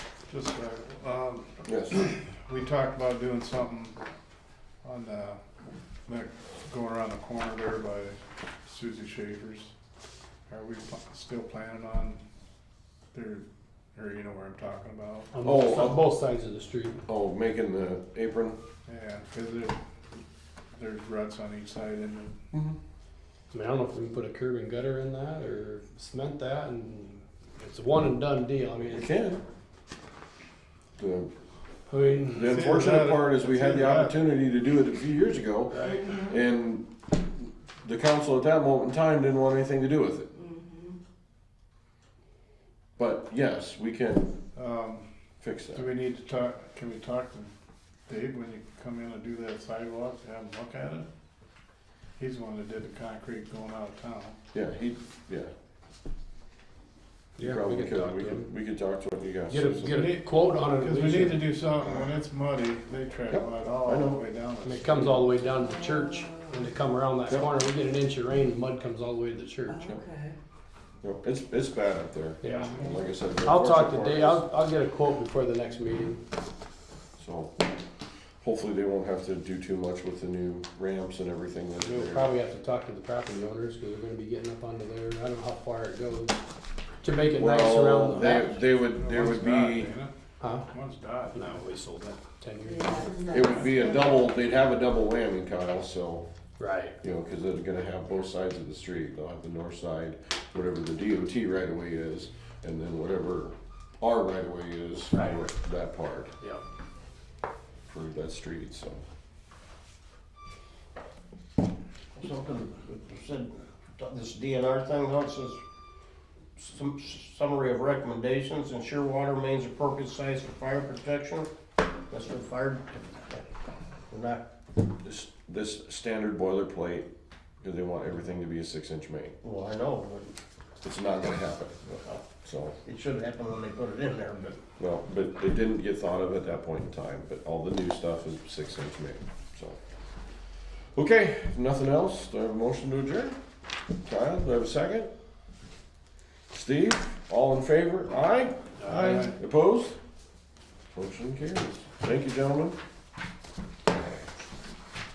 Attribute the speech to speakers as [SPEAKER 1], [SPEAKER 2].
[SPEAKER 1] Just, uh, um,
[SPEAKER 2] Yes.
[SPEAKER 1] we talked about doing something on the, that, going around the corner there by Susie Schaefer's. Are we pl- still planning on there, or you know where I'm talking about?
[SPEAKER 3] On
[SPEAKER 2] Oh,
[SPEAKER 3] both,
[SPEAKER 2] uh,
[SPEAKER 3] on both sides of the street.
[SPEAKER 2] Oh, making the apron?
[SPEAKER 1] Yeah, cause it, there's ruts on each side and
[SPEAKER 3] I mean, I don't know if we can put a curb and gutter in that or cement that and it's a one and done deal. I mean,
[SPEAKER 2] You
[SPEAKER 3] it's-
[SPEAKER 2] can. The
[SPEAKER 3] I mean,
[SPEAKER 2] the unfortunate part is we had the opportunity to do it a few years ago,
[SPEAKER 3] right?
[SPEAKER 2] and the council at that moment in time didn't want anything to do with it.
[SPEAKER 3] Mm-hmm.
[SPEAKER 2] But yes, we can
[SPEAKER 1] um,
[SPEAKER 2] fix
[SPEAKER 1] do
[SPEAKER 2] that.
[SPEAKER 1] we need to talk, can we talk to Dave when you come in and do that sidewalk, have him look at it? He's the one that did the concrete going out of town.
[SPEAKER 2] Yeah, he, yeah. he
[SPEAKER 3] Yeah, we
[SPEAKER 2] probably
[SPEAKER 3] could talk
[SPEAKER 2] We
[SPEAKER 3] to
[SPEAKER 2] could,
[SPEAKER 3] him.
[SPEAKER 2] we could talk to him, you guys.
[SPEAKER 3] Get a, get a quote on it. at
[SPEAKER 1] Because we
[SPEAKER 3] least.
[SPEAKER 1] need to do something, when it's muddy, they track
[SPEAKER 2] Yep,
[SPEAKER 1] mud
[SPEAKER 2] I
[SPEAKER 1] all the
[SPEAKER 2] know.
[SPEAKER 1] way down.
[SPEAKER 3] And it comes all the way down to the church. When they come around that
[SPEAKER 2] Yep.
[SPEAKER 3] corner, we get an inch of rain, the mud comes all the way to the church.
[SPEAKER 4] Okay.
[SPEAKER 2] Yep, It's, it's bad up there,
[SPEAKER 3] Yeah.
[SPEAKER 2] And like I said. the
[SPEAKER 3] I'll talk to
[SPEAKER 2] unfortunate
[SPEAKER 3] Dave,
[SPEAKER 2] part is-
[SPEAKER 3] I'll, I'll get a quote before the next meeting.
[SPEAKER 2] So hopefully they won't have to do too much with the new ramps and everything that
[SPEAKER 3] We'll
[SPEAKER 2] are there.
[SPEAKER 3] probably have to talk to the property owners, cause they're gonna be getting up onto there, I don't know how far it goes, to make it nice
[SPEAKER 2] Well,
[SPEAKER 3] around
[SPEAKER 2] they,
[SPEAKER 3] the.
[SPEAKER 2] they would, there would be,
[SPEAKER 3] Huh?
[SPEAKER 1] One's died.
[SPEAKER 3] No, we sold that ten years ago.
[SPEAKER 4] Yeah.
[SPEAKER 2] it would be a double, they'd have a double whammy, Kyle, so,
[SPEAKER 3] Right.
[SPEAKER 2] you know, cause they're gonna have both sides of the street. They'll have the north side, whatever the DOT right of way is, and then whatever our right of way is for
[SPEAKER 3] Right.
[SPEAKER 2] that part,
[SPEAKER 3] Yep.
[SPEAKER 2] for that street, so.
[SPEAKER 5] Something, said, this DNR thing, how it says, "Sum- summary of recommendations, ensure water mains appropriate size for fire protection. That's for fire, we're not,
[SPEAKER 2] This, this standard boilerplate, cause they want everything to be a six inch main.
[SPEAKER 5] well, I know,
[SPEAKER 2] It's not gonna happen, so.
[SPEAKER 5] but it should happen when they put it in there, but
[SPEAKER 2] Well, but it didn't get thought of at that point in time, but all the new stuff is six inch made, so. Okay, if nothing else, do I have a motion to adjourn? Kyle, do I have a second? Steve, all in favor, aye?
[SPEAKER 1] Aye.
[SPEAKER 2] Opposed? Motion carries. Thank you, gentlemen.